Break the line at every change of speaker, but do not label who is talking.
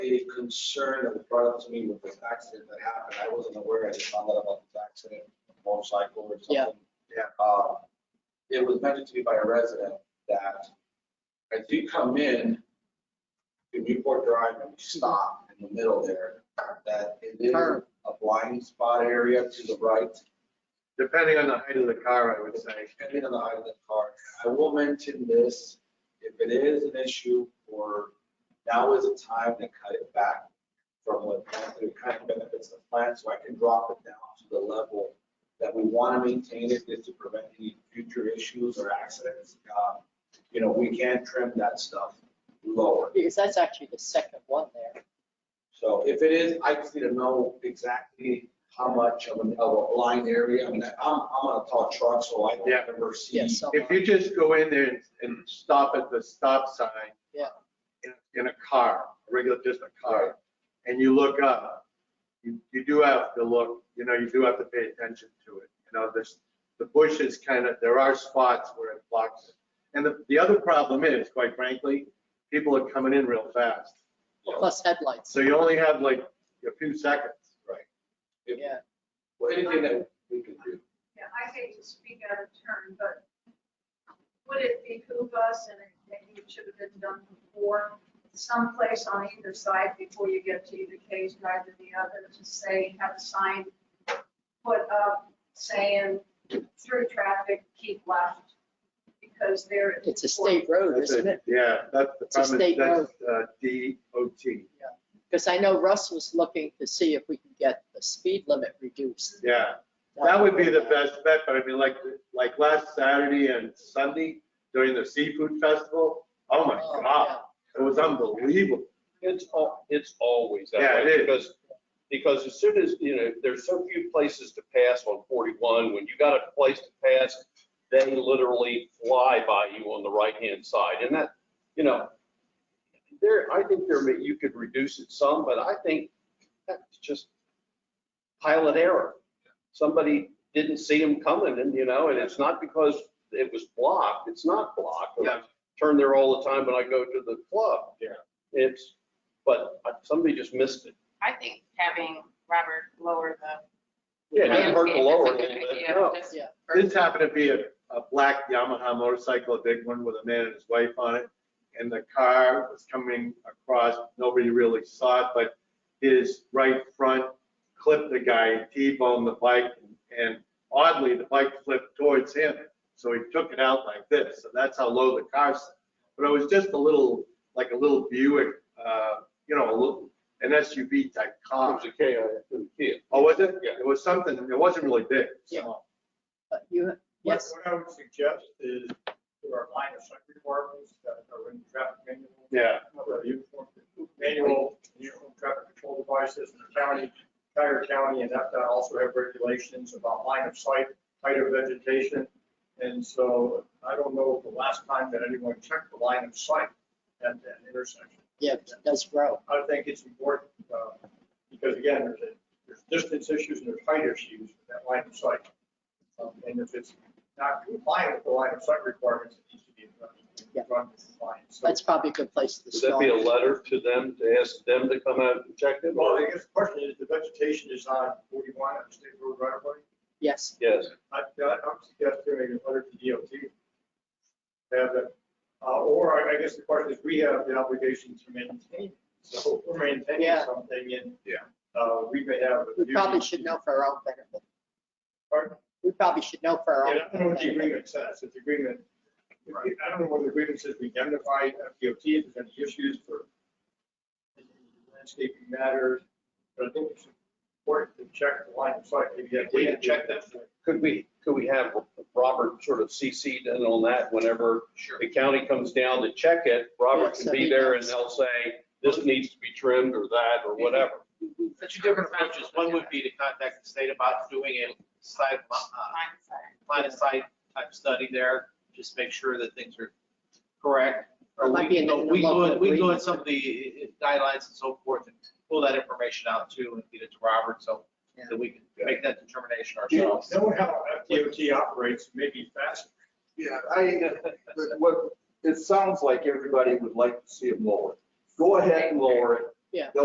concern that was brought up to me with this accident that happened, I wasn't aware, I just found out about this accident, motorcycle or
Yeah.
something. Yeah. Uh, it was mentioned to me by a resident that as you come in to Newport Drive and you stop in the middle there, that it is
Turn.
a blind spot area to the right,
Depending on the height of the car, I would say.
depending on the height of the car. I will mention this, if it is an issue for, now is the time to cut it back from what, it kind of benefits the plant, so I can drop it down to the level that we want to maintain it, just to prevent any future issues or accidents. Uh, You know, we can trim that stuff lower.
Because that's actually the second one there.
So if it is, I just need to know exactly how much of an- of a blind area, I mean, I'm, I'm on a tall truck, so I
Yeah.
don't ever see.
Yes, so,
If you just go in there and, and stop at the stop sign.
Yeah.
In, in a car, a regular, just a car, and you look up, you, you do have to look, you know, you do have to pay attention to it. You know, this, the bushes kind of, there are spots where it blocks. it. And the, the other problem is, quite frankly, people are coming in real fast.
plus headlights,
So you only have like a few seconds.
Right. If-
yeah.
Well, anything that we can do.
Yeah, I hate to speak out of turn, but would it behoove us, and it- maybe it should have been done before, someplace on either side before you get to either Kay's Drive or the other, to say, have a sign put up saying, through traffic, keep left, because there.
It's a state road,
That's
isn't it?
Yeah, that's
Oh,
the
It's a
problem, is
state road.
that's uh, DOT,
Because I know Russ was looking to see if we could get the speed limit reduced.
yeah. That would be the best bet, but I mean, like, like last Saturday and Sunday during the seafood festival, oh my
Oh,
God, it was unbelievable.
It's, al- it's always that
Yeah,
way.
it is.
Because, because as soon as, you know, there's so few places to pass on 41, when you got a place to pass, they literally fly by you on the right-hand side. And that, you know, there, I think there, may- you could reduce it some, but I think that's just pilot error. Somebody didn't see them coming and, you know, and it's not because it was blocked. It's not blocked. I
Yeah.
Turn there all the time when I go to the club.
Yeah.
It's, but somebody just missed it.
I think having Robert lower the.
Yeah, it didn't hurt the
landscape is a
lower a
good
little bit,
idea,
no.
just
Yeah.
for-
This happened to be a, a black Yamaha motorcycle, a big one with a man and his wife on it. And the car was coming across, nobody really saw it, but his right front clipped the guy, T-boned the bike. And oddly, the bike flipped towards him, so he took it out like this. So that's how low the car sat. But it was just a little, like a little Buick, uh, you know, a little, an SUV type
It
car.
was a K, it was a kid.
Oh, was it?
Yeah.
It was something, it wasn't really big.
Yeah.
so.
But you,
What,
yes,
what I would suggest is there are minor site requirements that are in the traffic manual.
Yeah.
uh, uniform Manual, uniform traffic control devices in the county, entire county, and that also have regulations about line of sight, height of vegetation. And so I don't know the last time that anyone checked the line of sight at that intersection.
yeah, it does grow.
I think it's important, uh, because again, there's, a- there's distance issues and there's height issues with that line of sight. Um, And if it's not compliant with the line of sight requirements, it needs to be addressed.
Yeah.
Run compliant. So-
That's probably a good place to
Would that be a
start.
letter to them, to ask them to come out and check it?
Well, I guess the question is, the vegetation is on forty-one on the state road right away.
Yes,
Yes,
I, I'm suggesting a letter to DOT. Have it, uh, or I- I guess the question is, we have the obligation to maintain, so if we're maintaining
Yeah.
something and. Yeah. Uh, we may have. a
we probably
duty
should
to-
know for our own benefit.
Pardon?
We probably should know for
Yeah,
our
I
own.
don't know what the
benefit.
agreement says, if the agreement, I don't know what the agreement says, we indemnify FDOT if there's any issues for landscaping matters, but I think it's important to check the line of sight, maybe that.
We can check that. could we, could we have Robert sort of CC'd in on that whenever
Sure.
the county comes down to check it? Robert
Yeah, so
can
he
be there and
knows.
they'll say, this needs to be trimmed or that or whatever.
The two different approaches, one would be to contact the state about doing a side, uh,
Fine, sorry.
line of sight type study there, just make sure that things are correct.
Or it might be in the- in the
We go,
local
we go in
agreement.
some of the uh, guidelines and so forth and pull that information out too and get it to Robert so that we can make that determination
You
ourselves.
know how FDOT operates, maybe faster.
Yeah, I, but what, it sounds like everybody would like to see it lower. Go ahead and lower it.
Yeah.